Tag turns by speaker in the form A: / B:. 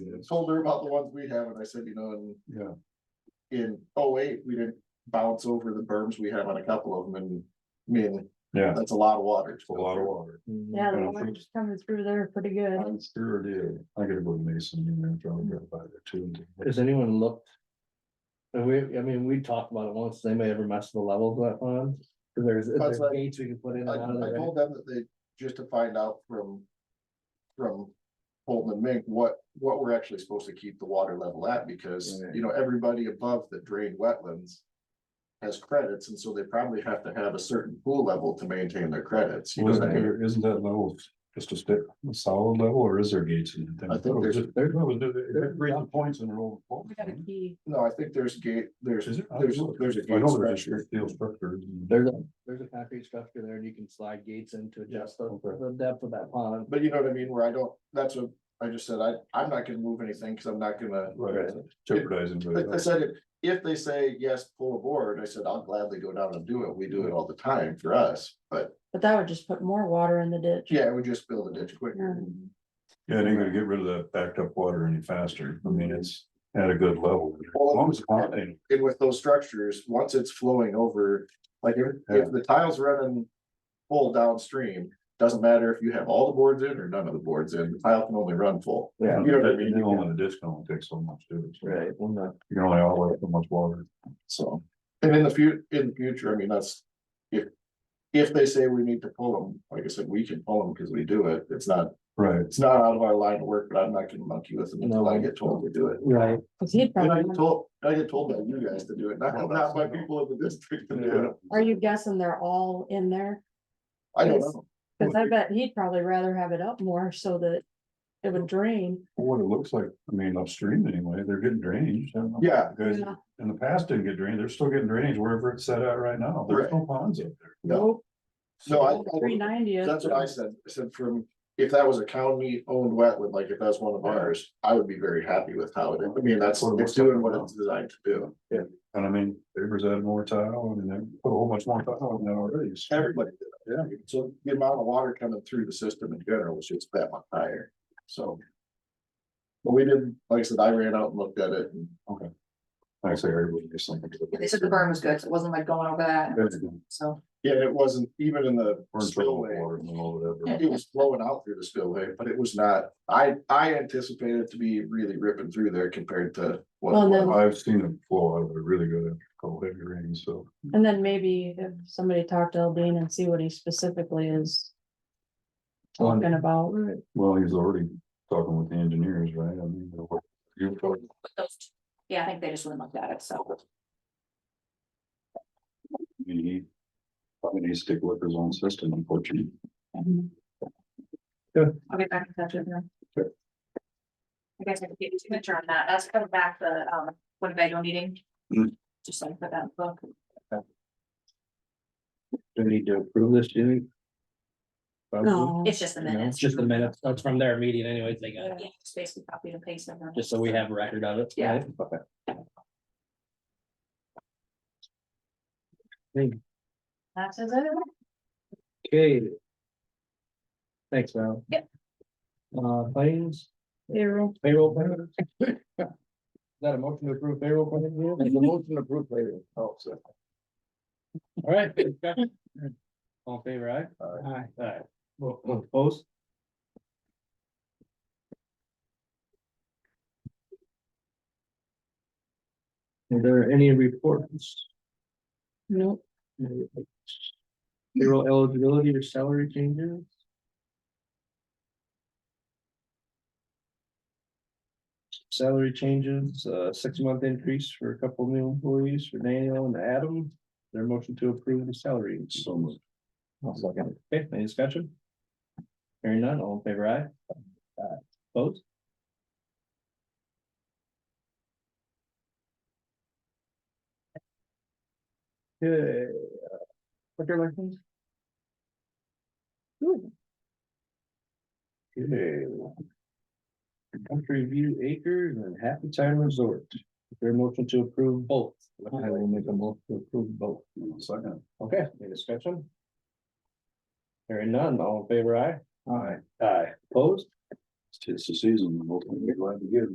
A: and told her about the ones we have, and I said, you know, and
B: Yeah,
A: in 08 we didn't bounce over the berms we have on a couple of them, and I mean,
B: yeah,
A: that's a lot of water.
B: a lot of water.
C: Yeah, the
B: Yeah,
C: water's coming through there pretty good.
B: I'm sure it is. I gotta go to Mason, you know, probably drive by there too.
D: Has anyone looked? And we, I mean, we talked about it once, they may ever mess with the levels of that pond, 'cause there's,
A: That's
D: there's
A: what-
D: gates we can put in and
A: I,
D: out of
A: I
D: there. right?
A: told them that they, just to find out from, from Bolton and Mink, what, what we're actually supposed to keep the water level at, because,
B: Right.
A: you know, everybody above the drained wetlands has credits, and so they probably have to have a certain pool level to maintain their credits. You know,
B: Wasn't
A: I mean,
B: there, isn't that level just a stick, a solid level or is there gates in it?
A: I think there's-
B: There's, there's three points in a row.
C: We got a key.
A: No, I think there's gate, there's,
B: Is it? I
A: there's,
B: don't know.
A: there's a
B: I
A: gate
B: know there's
A: structure.
B: a steel structure.
D: There's a, there's a concrete structure there and you can slide gates in to adjust the,
B: Okay.
D: the depth of that pond.
A: But you know what I mean, where I don't, that's what I just said, I, I'm not gonna move anything, cause I'm not gonna.
B: Right, jeopardizing.
A: I, I
B: but-
A: said, if- if they say, yes, pull aboard, I said, I'll gladly go down and do it, we do it all the time for us, but
C: But that would just put more water in the ditch. Um,
A: yeah, we just build a ditch quicker.
B: Yeah, and you're gonna get rid of that backed up water any faster. I mean, it's at a good level. As
A: Well,
B: long as the pond ain't
A: And with those structures, once it's flowing over, like if, if the tile's running full downstream, doesn't matter if you have all the boards in or none of the boards in, the tile can only run full.
D: Yeah.
A: You know what I
B: You
A: mean?
B: don't want a disc, don't take so much, do it.
D: Right, well, no,
B: You can only outlet so much water.
A: So, and in the fut- in the future, I mean, that's, if, if they say we need to pull them, like I said, we can pull them because we do it, it's not
B: Right.
A: it's not out of our line of work, but I'm not gonna monkey with them until I get told to do it.
D: right,
C: Cause he'd
A: And I
C: probably,
A: get told, I get told by you guys to do it, not, not by people in the district to do it.
C: are you guessing they're all in there?
A: I don't know.
C: Cause I bet he'd probably rather have it up more so that it would drain.
B: What it looks like, I mean, upstream anyway, they're getting drainage. I don't know.
A: Yeah,
B: Guys,
C: Yeah.
B: in the past didn't get drained, they're still getting drainage wherever it's set out right now. There's no ponds up there.
A: No. no,
C: Three
A: I, I-
C: ninety.
A: that's what I said. I said from, if that was a county owned wetland, like if that's one of ours, I would be very happy with how it, I mean, that's, it's doing what it's designed to do.
B: And I mean, Beaver's added more tile and they put a whole bunch more tile in there already. so-
A: Everybody did it. Yeah. So the amount of water coming through the system in general was just that much higher, so. But we didn't, like I said, I ran out and looked at it and
B: Actually, everybody just like.
E: Yeah, They said the burn was good, so it wasn't like going over that,
B: Burn
E: so.
A: Yeah, and it wasn't even in the
B: trouble with
A: spillway.
B: water and all of that.
A: It was flowing out through the spillway, but it was not, I, I anticipated it to be really ripping through there compared to. what it
C: Well,
A: was.
C: then-
B: I've seen it flow out of it really good after cold heavy rain, so.
A: Mm-hmm.
C: And then maybe if somebody talked to Eldine and see what he specifically is talking about.
B: Well, he's already talking with the engineers, right? I mean, they're work- you're talking-
E: Yeah, I think they just wouldn't look at it, so.
B: I mean, he probably needs to stick with his own system, unfortunately.
E: I'll get back in touch with them.
B: Sure.
E: I guess I could get your signature on that, that's coming back the, um, Winnebago meeting.
B: Hmm.
D: Mm.
E: Just like put that in the book.
D: do we need to approve this, do you? think?
C: No,
E: It's just the
D: No, it's
E: minutes.
D: just the minutes, that's from their meeting anyways, they got, it,
E: Yeah, just basically copy and paste them.
D: just so we have a record of it.
E: Yeah.
D: right? Okay. Thank-
E: That says it.
D: Okay. Thanks, Val.
E: Yep.
D: Uh, claims,
C: payroll.
D: payroll. claims? Is that a motion to approve payroll? claims?
C: It's a
D: motion to approve payroll. Oh, so. All right. discussion. All in favor, aye? Aye. Aye. Well, opposed? Are there any reports?
C: Nope.
D: Payroll eligibility or salary changes? Salary changes, uh, six month increase for a couple new employees for Daniel and Adam. Their motion to approve the salary. increase.
B: So much.
D: Okay, any discussion? Hearing none, all in favor, aye? Aye. Vote? Okay. uh, Liquor license? Okay. Country View Acres and Happy Time Resort. Is there a motion to approve both? I will make a motion to approve both.
B: Second.
D: Okay, any discussion? Hearing none, all in favor, aye? Aye. Aye, opposed?
B: It's the season, and hopefully we're glad to get it.